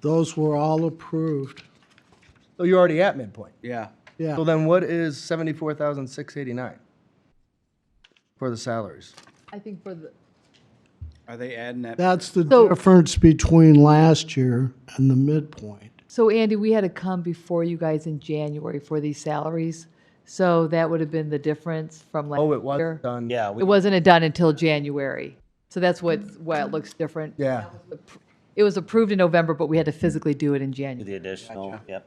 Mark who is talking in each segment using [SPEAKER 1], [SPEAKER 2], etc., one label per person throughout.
[SPEAKER 1] Those were all approved.
[SPEAKER 2] So you're already at midpoint.
[SPEAKER 3] Yeah.
[SPEAKER 1] Yeah.
[SPEAKER 2] So then what is seventy-four thousand six eighty-nine for the salaries?
[SPEAKER 4] I think for the,
[SPEAKER 3] Are they adding that?
[SPEAKER 1] That's the
[SPEAKER 4] So-
[SPEAKER 1] difference between last year and the midpoint.
[SPEAKER 4] so Andy, we had to come before you guys in January for these salaries. So that would have been the difference from last year.
[SPEAKER 2] Oh, it was done.
[SPEAKER 5] Yeah,
[SPEAKER 4] It
[SPEAKER 5] we,
[SPEAKER 4] wasn't done until January. So that's what, why it looks different.
[SPEAKER 2] Yeah.
[SPEAKER 4] It was approved in November, but we had to physically do it in January.
[SPEAKER 5] the additional, yep.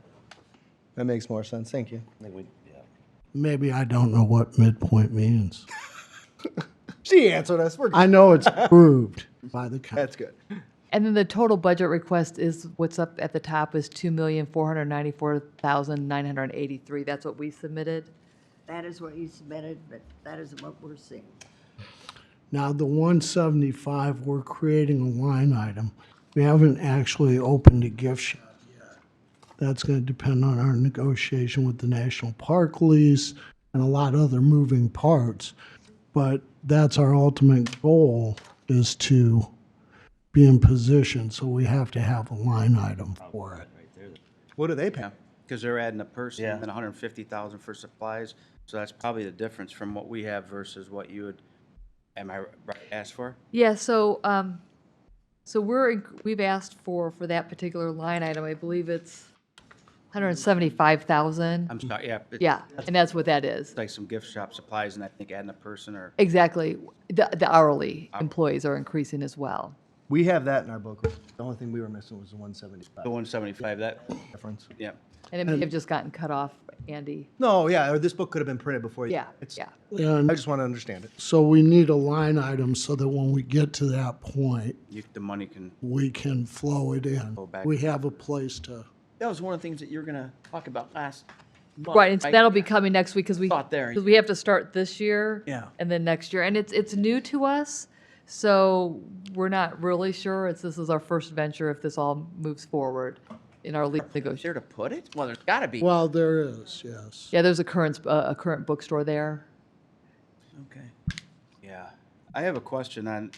[SPEAKER 2] That makes more sense. Thank you.
[SPEAKER 5] I think we, yeah.
[SPEAKER 1] Maybe I don't know what midpoint means.
[SPEAKER 2] She answered us. We're good.
[SPEAKER 1] I know it's approved by the county.
[SPEAKER 2] That's good.
[SPEAKER 4] And then the total budget request is, what's up at the top is two million, four hundred ninety-four thousand, nine hundred eighty-three. That's what we submitted.
[SPEAKER 6] That is what you submitted, but that isn't what we're seeing.
[SPEAKER 1] Now, the one seventy-five, we're creating a line item. We haven't actually opened a gift shop yet. That's gonna depend on our negotiation with the National Park lease and a lot of other moving parts. But that's our ultimate goal is to be in position, so we have to have a line item for it.
[SPEAKER 2] What do they pay?
[SPEAKER 3] Because they're adding a person
[SPEAKER 5] Yeah.
[SPEAKER 3] and then hundred and fifty thousand for supplies. So that's probably the difference from what we have versus what you would, am I right, ask for?
[SPEAKER 4] Yeah, so, um, so we're, in- we've asked for, for that particular line item, I believe it's hundred and seventy-five thousand.
[SPEAKER 3] I'm sorry, yeah. it's
[SPEAKER 4] Yeah, and that's what that is.
[SPEAKER 3] Like some gift shop supplies and I think adding a person or,
[SPEAKER 4] Exactly. The, the hourly employees are increasing as well.
[SPEAKER 2] We have that in our booklet. The only thing we were missing was the one seventy-five
[SPEAKER 3] the one seventy-five, that,
[SPEAKER 2] reference.
[SPEAKER 3] yeah.
[SPEAKER 4] And it may have just gotten cut off, Andy.
[SPEAKER 2] No, yeah, or this book could have been printed before. you-
[SPEAKER 4] Yeah,
[SPEAKER 2] It's-
[SPEAKER 4] yeah.
[SPEAKER 1] And
[SPEAKER 2] I just want to understand it.
[SPEAKER 1] so we need a line item so that when we get to that point,
[SPEAKER 3] You, the money can,
[SPEAKER 1] we can flow it in.
[SPEAKER 3] back.
[SPEAKER 1] We have a place to.
[SPEAKER 7] That was one of the things that you were gonna talk about last month.
[SPEAKER 4] Right, and so that'll be coming next week because we,
[SPEAKER 7] Thought there.
[SPEAKER 4] because we have to start this year.
[SPEAKER 7] Yeah.
[SPEAKER 4] And then next year. And it's, it's new to us, so we're not really sure. It's, this is our first venture if this all moves forward in our lease negotiation.
[SPEAKER 7] There to put it? Well, there's gotta be.
[SPEAKER 1] Well, there is, yes.
[SPEAKER 4] Yeah, there's a current, uh, a current bookstore there.
[SPEAKER 7] Okay.
[SPEAKER 3] yeah. I have a question on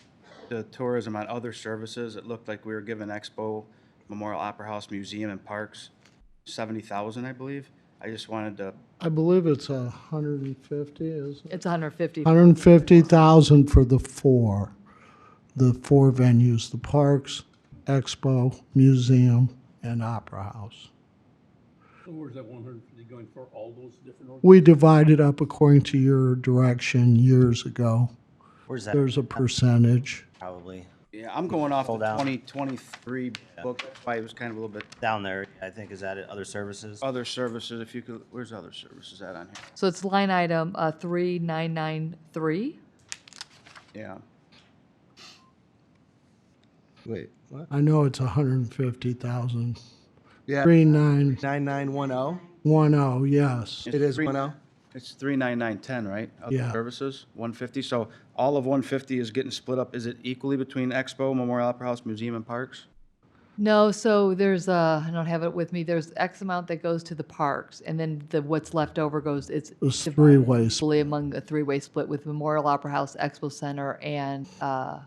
[SPEAKER 3] the tourism on other services. It looked like we were giving Expo, Memorial Opera House, Museum and Parks seventy thousand, I believe. I just wanted to
[SPEAKER 1] I believe it's a hundred and fifty, is it?
[SPEAKER 4] It's 150.
[SPEAKER 1] Hundred and fifty thousand for the four, the four venues, the parks, expo, museum, and opera house.
[SPEAKER 8] So where's that one hundred and fifty going for all those different org-
[SPEAKER 1] We divided up according to your direction years ago.
[SPEAKER 5] Where's that?
[SPEAKER 1] There's a percentage.
[SPEAKER 5] Probably
[SPEAKER 3] Yeah, I'm going off the
[SPEAKER 5] Hold out.
[SPEAKER 3] 2023 book, why it was kind of a little bit,
[SPEAKER 5] down there, I think, is that it? Other services?
[SPEAKER 3] other services, if you could, where's other services at on
[SPEAKER 4] So it's line item uh, 3993.
[SPEAKER 3] here? Yeah.
[SPEAKER 2] Wait, what?
[SPEAKER 1] I know it's a hundred and fifty thousand.
[SPEAKER 2] Yeah,
[SPEAKER 1] Three nine
[SPEAKER 2] nine nine one oh.
[SPEAKER 1] one oh, yes.
[SPEAKER 2] It is
[SPEAKER 3] Three-
[SPEAKER 2] one oh.
[SPEAKER 3] It's 39910, right?
[SPEAKER 1] Yeah.
[SPEAKER 3] Other services, 150, so all of 150 is getting split up, is it equally between Expo, Memorial Opera House, Museum and Parks?
[SPEAKER 4] No, so there's uh, I don't have it with me. There's X amount that goes to the parks, and then the what's left over goes. It's
[SPEAKER 1] It was three-way split.
[SPEAKER 4] fully among a three-way split with Memorial Opera House, Expo Center, and uh,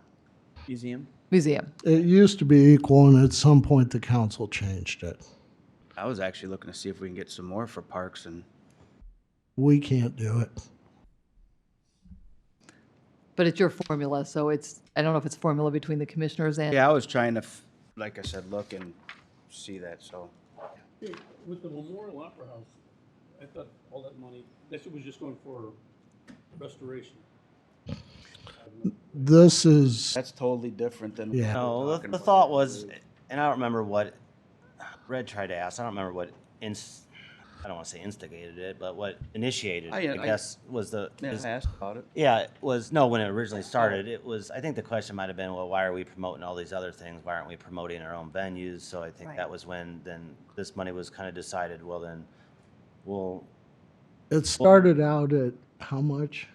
[SPEAKER 7] Museum?
[SPEAKER 4] museum.
[SPEAKER 1] It used to be equal and at some point the council changed it.
[SPEAKER 3] I was actually looking to see if we can get some more for Parks and,
[SPEAKER 1] We can't do it.
[SPEAKER 4] But it's your formula, so it's I don't know if it's formula between the commissioners and.
[SPEAKER 3] yeah, I was trying to, f- like I said, look and see that, so.
[SPEAKER 8] Hey, With the Memorial Opera House, I thought all that money, that shit was just going for restoration.
[SPEAKER 1] This is.
[SPEAKER 3] That's totally different than.
[SPEAKER 1] Yeah.
[SPEAKER 5] No, the, the thought was, and I don't remember what, Red tried to ask, I don't remember what ins, I don't wanna say instigated it, but what initiated,
[SPEAKER 3] I-
[SPEAKER 5] it,
[SPEAKER 3] Oh, I-
[SPEAKER 5] I guess, was the,
[SPEAKER 3] Yeah,
[SPEAKER 5] is-
[SPEAKER 3] I asked about it.
[SPEAKER 5] yeah, it was, no, when it originally started, it was, I think the question might have been, well, why are we promoting all these other things? Why aren't we promoting our own venues? So I think that was when, then this money was kinda decided, well, then, we'll
[SPEAKER 1] It started out at how much?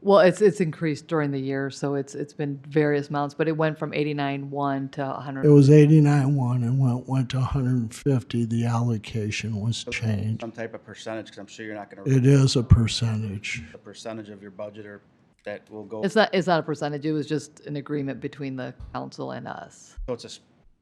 [SPEAKER 4] Well, it's it's increased during the year, so it's it's been various amounts, but it went from 89.1 to 100.
[SPEAKER 1] It was eighty-nine one and went, went to hundred and fifty, the allocation was changed.
[SPEAKER 3] Some type of percentage, because I'm sure you're not gonna.
[SPEAKER 1] It is a percentage.
[SPEAKER 3] the percentage of your budget or that will go,
[SPEAKER 4] It's not it's not a percentage. It was just an agreement between the council and us.
[SPEAKER 3] so it's a, s-